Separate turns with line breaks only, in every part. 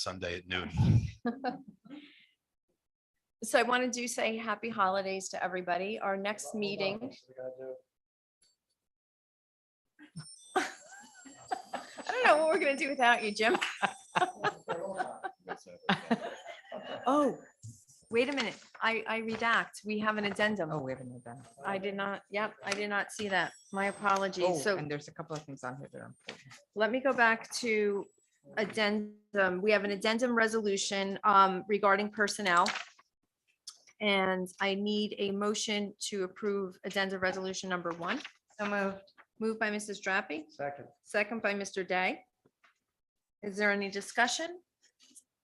Sunday at noon.
So I wanted to say happy holidays to everybody. Our next meeting. I don't know what we're gonna do without you, Jim. Oh, wait a minute. I, I redact. We have an
Oh,
addendum.
we haven't had that.
I did not, yep, I did not see that. My apologies.
Oh,
So
and there's a couple of things on here that are important.
let me go back to addendum. We have an addendum resolution um, regarding personnel. And I need a motion to approve addendum resolution number one.
So moved.
Moved by Mrs. Drappi,
Second.
second by Mr. Day. Is there any discussion?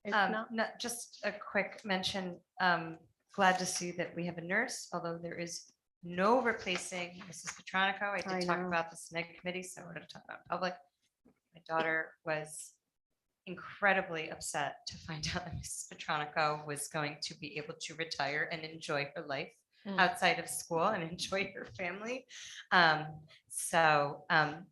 If
Um,
not,
no, just a quick mention, um, glad to see that we have a nurse, although there is no replacing Mrs. Petronico. I
I
did talk
know.
about this in the committee, so we're gonna talk about it in public. My daughter was incredibly upset to find out that Mrs. Petronico was going to be able to retire and enjoy her life
Mm.
outside of school and enjoy her family. Um, so, um,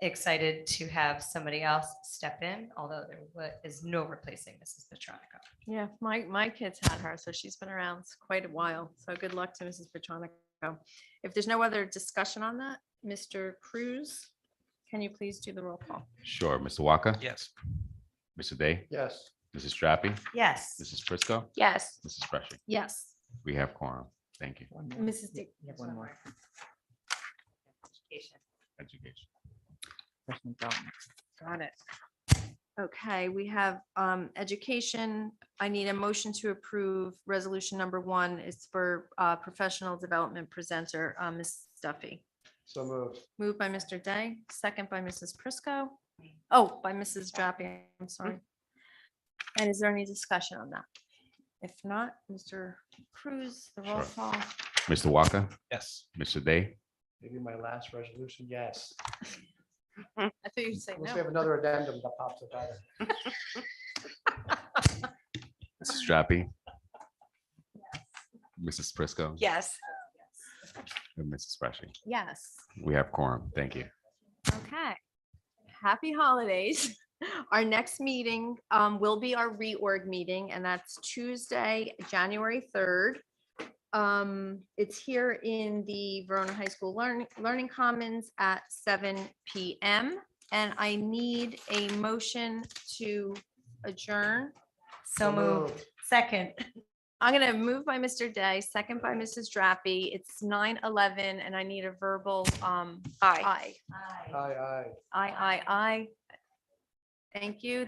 excited to have somebody else step in, although there wa- is no replacing Mrs. Petronico.
Yeah, my, my kids had her, so she's been around quite a while. So good luck to Mrs. Petronico. If there's no other discussion on that, Mr. Cruz, can you please do the roll call?
Sure. Mr. Walker?
Yes.
Mr. Day?
Yes.
Mrs. Drappi?
Yes.
Mrs. Prisco?
Yes.
Mrs. Freshy?
Yes.
We have quorum. Thank you.
One more. You
Mrs. Dick.
have one more.
Education.
Education.
Professional development.
Got it. Okay, we have um, education. I need a motion to approve resolution number one. It's for uh, professional development presenter, uh, Ms. Duffy.
So moved.
Moved by Mr. Day, second by Mrs. Prisco. Oh, by Mrs. Drappi, I'm sorry. And is there any discussion on that? If not, Mr. Cruz, the roll
Sure.
call.
Mr. Walker?
Yes.
Mr. Day?
Maybe my last resolution, yes.
I thought you'd say
Unless we have another addendum that pops up. out of it.
Mrs. Drappi? Mrs. Prisco?
Yes.
And Mrs. Freshy?
Yes.
We have quorum. Thank you.
Okay. Happy holidays. Our next meeting um, will be our reorg meeting, and that's Tuesday, January 3rd. Um, It's here in the Verona High School Learning, Learning Commons at seven PM. And I need a motion to adjourn.
So moved. Second.
I'm gonna move by Mr. Day, second by Mrs. Drappi. It's 9:11, and I need a verbal um, aye.
Aye, aye.
Aye, aye, aye. Thank you.